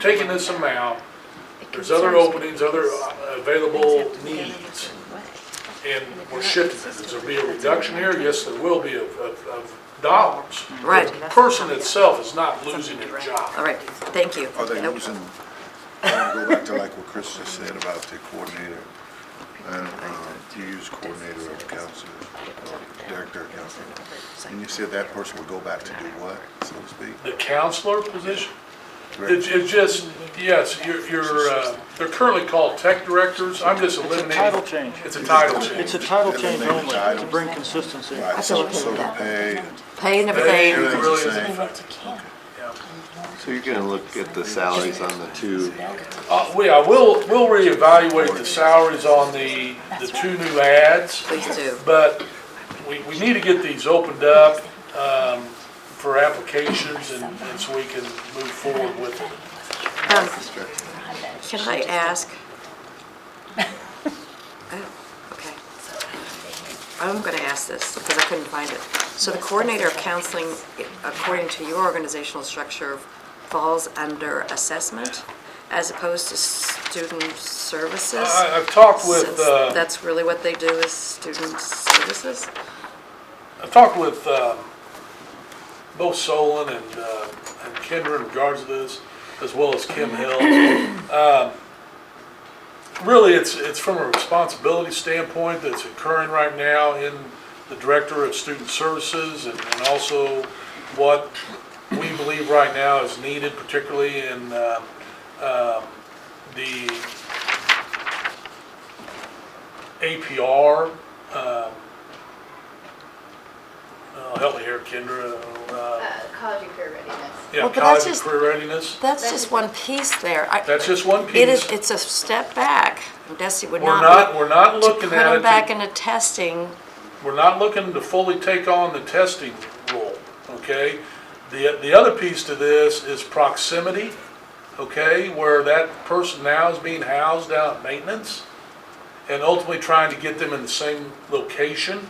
taking this amount, there's other openings, other uh, available needs, and we're shifting it. Is there be a reduction here? Yes, there will be of, of, of dollars. Right. The person itself is not losing their All job. right, thank you. Are they Nope. losing, I wanna go back to like what Chris just said about the coordinator. And, uh, you use coordinator of council, or director of council. And you said that person would go back to do what, so to speak? The counselor position? It's, Correct? it's just, yes, you're, you're, uh, they're currently called tech directors. I'm just eliminating. title change. It's a title It's change. a title change Eliminate only, to titles. bring consistency. Right, feel so, okay so with the that. pay, Pay and Pay everything, everything's the really same. isn't affected. So you're gonna look at the salaries on the two, Uh, we, I will, we'll reevaluate the salaries on the, the two new ads. please do. But we, we need to get these opened up um, for applications and and so we can move forward with it. Um, Can I ask? Oh, okay. I'm going to ask this because I couldn't find it. So the coordinator of counseling, according to your organizational structure, falls under assessment as opposed to student services? I, I've talked with, Since uh, That's really what they do is student services? I've talked with um, both Solon and uh, and Kendra in regards to this, as well as Kim Hill. Um, Really, it's, it's from a responsibility standpoint that's occurring right now in the Director of Student Services and and also what we believe right now is needed, particularly in um, um, the APR. um, oh, Help me here, Kendra. uh, Uh, College and career readiness. Yeah, Well, but that's college and just- career readiness. That's just one piece there. I- That's just one It is, piece. it's a step back. Desi would We're not not, be we're not put looking at them it, to- back into testing. we're not looking to fully take on the testing role, okay? The, the other piece to this is proximity, okay? Where that person now is being housed out at maintenance and ultimately trying to get them in the same location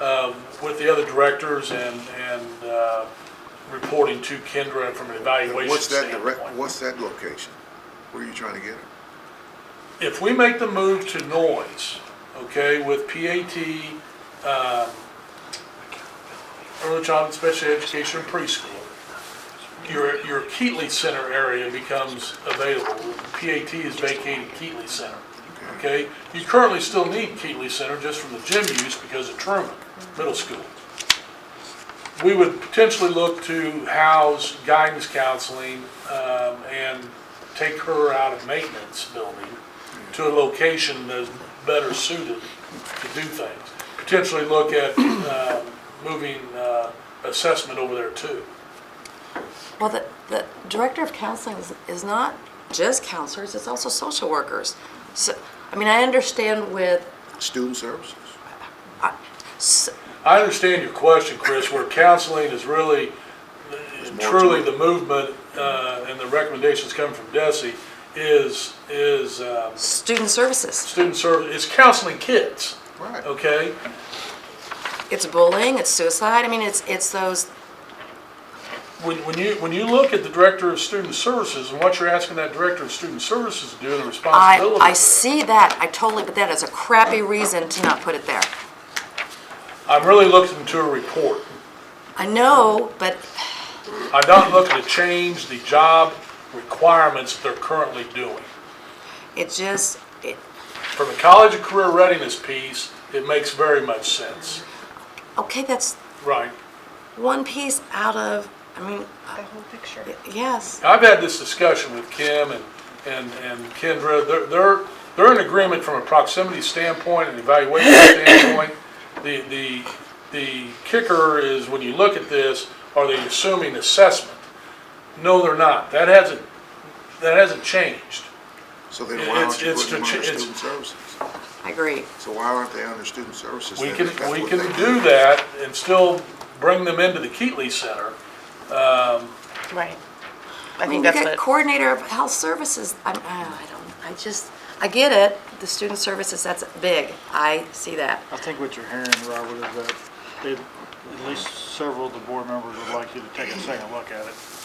um, with the other directors and, and uh, reporting to Kendra from an evaluation what's that standpoint. direct, what's that location? Where are you trying to get it? if we make the move to noise, okay, with PAT, um, early childhood special education and preschool, your, your Keatley Center area becomes available. PAT is vacating Keatley Center, okay? You currently still need Keatley Center just from the gym use because of Truman Middle School. We would potentially look to house guidance counseling, um, and take her out of maintenance building to a location that's better suited to do things. Potentially look at uh, moving uh, assessment over there too. Well, the, the director of counseling is, is not just counselors, it's also social workers. So, I mean, I understand with, uh, Student services? s- I understand your question, Chris, where counseling is really more truly to the movement uh, and the recommendations coming from DESI is, is um, student services. student service, is counseling kids, Right. okay? It's bullying, it's suicide, I mean, it's, it's those, When, when you, when you look at the Director of Student Services and what you're asking that Director of Student Services to do and the I, responsibility. I there, see that, I totally, but that is a crappy reason to not put it there. I'm really looking to a report. I know, but I'm not looking to change the job requirements they're currently doing. it just, it, From the college and career readiness piece, it makes very much sense. okay, that's Right. one piece out of, I mean, The whole picture. yes, I've had this discussion with Kim and, and, and Kendra. They're, they're, they're in agreement from a proximity standpoint and evaluation standpoint. The, the, the kicker is when you look at this, are they assuming assessment? No, they're not. That hasn't, that hasn't changed. So then why aren't you It's- it's putting them to under ch- it's- student services? I agree. So why aren't they under student services? We then, can, if that's we what can they do that and still bring them into the Keatley Center. Right. I mean, think you that's get what, coordinator of health services, I'm, oh, I don't, I just, I get it, the student services, that's big, I see that. I think what you're hearing, Robert, is that they- at least several of the board members would like you to take a second look at it.